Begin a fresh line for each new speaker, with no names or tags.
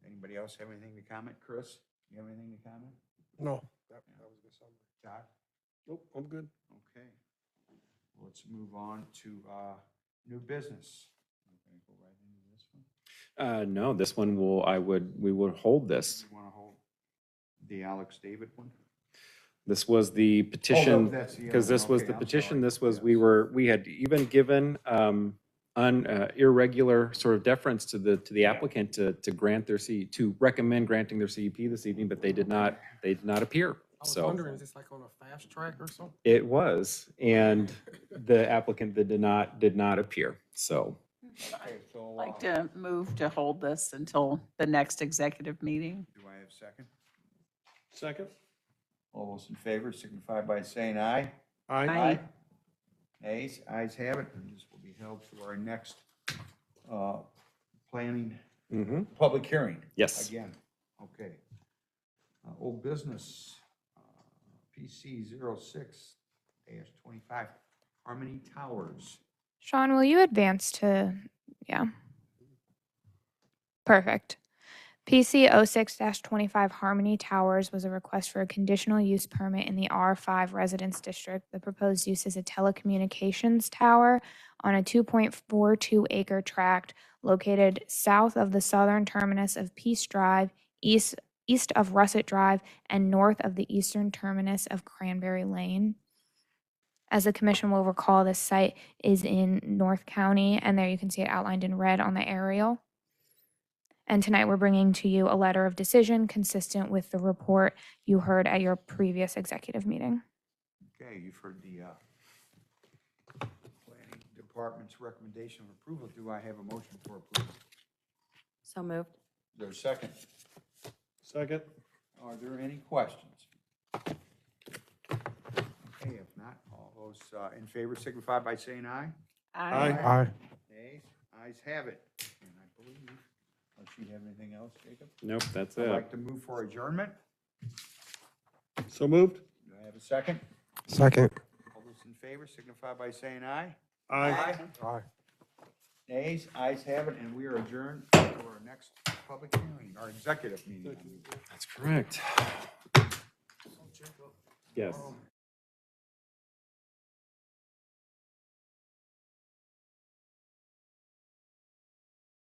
Anybody else have anything to comment? Chris, you have anything to comment?
No,
That, that was a good summary.
Todd?
nope, I'm good.
Okay. Let's move on to uh, new business. I'm going to go right into this one.
Uh, no, this one will, I would, we would hold this.
You want to hold the Alex David one?
This was the petition,
that's the other
because
one.
this was
Okay,
the
I'm
petition,
sorry.
this was,
Yeah.
we were, we had even given, um, un, uh, irregular sort of deference to the, to the applicant to, to grant their C, to recommend granting their CEP this evening, but they did not, they did not appear,
I was
so.
wondering, is this like on a fast track or something?
It was, and the applicant that did not, did not appear, so.
Okay, so,
Like
uh,
to move to hold this until the next executive meeting.
Do I have a second?
Second?
All those in favor signify by saying aye.
Aye.
Aye.
Nays, ayes have it, and this will be held for our next uh, planning,
Mm-hmm.
public hearing.
Yes.
Again, okay. Uh, Old business, uh, PC 06 25, Harmony Towers.
Sean, will you advance to, yeah. Perfect. oh PC 06-25 Harmony Towers was a request for a conditional use permit in the R5 Residence District. The proposed use is a telecommunications tower on a 2.42 acre tract located south of the southern terminus of Peace Drive, east, east of Russet Drive, and north of the eastern terminus of Cranberry Lane. As the commission will recall, this site is in North County, and there you can see it outlined in red on the aerial. And tonight, we're bringing to you a letter of decision consistent with the report you heard at your previous executive meeting.
Okay, you've heard the uh, planning department's recommendation of approval. Do I have a motion for approval?
So moved.
Is there a second?
Second?
Are there any questions? Okay, if not, all those uh, in favor signify by saying aye.
Aye.
Nays, ayes have it. And I believe, unless you have anything else, Jacob?
Nope, that's
I'd
it.
like to move for adjournment.
So moved?
Do I have a second?
Second.
All those in favor signify by saying aye.
Aye. Aye.
Nays, ayes have it, and we are adjourned to our next public hearing, our executive meeting. I mean.
That's correct. Yes.